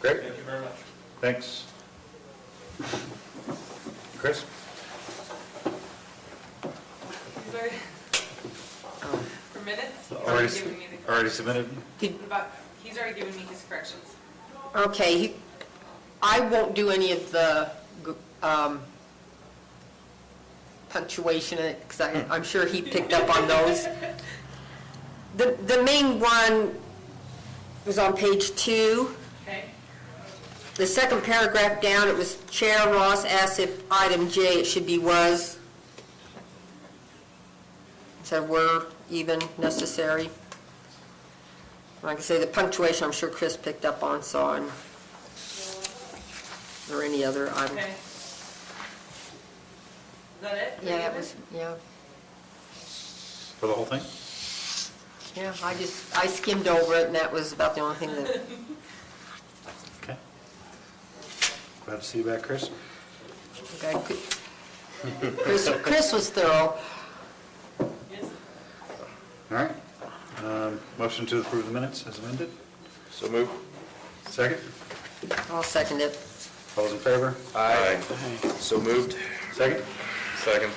Great, Thank you very much. thanks. Chris? Sorry. For minutes? He's Already already s- given me the Already submitted? Did- corrections. But he's already given me his corrections. Okay, he- I won't do any of the gr- um, punctuation, because I'm sure he picked up on those. The the main one was on page two. Okay. The second paragraph down, it was Chair Ross asked if item J, it should be was. So were even necessary. Like I say, the punctuation, I'm sure Chris picked up on, saw, and, or any other item. Okay. Is that it? Yeah, that was, yeah, For the whole thing? yeah, I just, I skimmed over it, and that was about the only thing that, Okay. Glad to see you back, Chris. I could. Chris, Chris was thorough. Yes. All right. Um, Motion to approve the minutes as amended? So move. Second? I'll second it. All those in favor? Aye. So moved. Second? Second.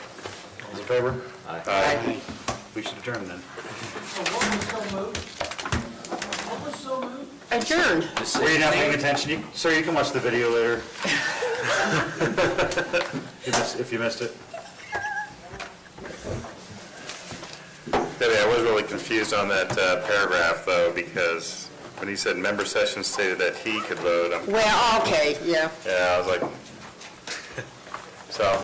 All those in favor? Aye. We should adjourn then. Adjourned. Were you not paying attention? You- Sir, you can watch the video later. If you missed- If you missed it. Debbie, I was really confused on that uh, paragraph, though, because when he said member session stated that he could vote, I'm- Well, okay, yeah. yeah, I was like, so.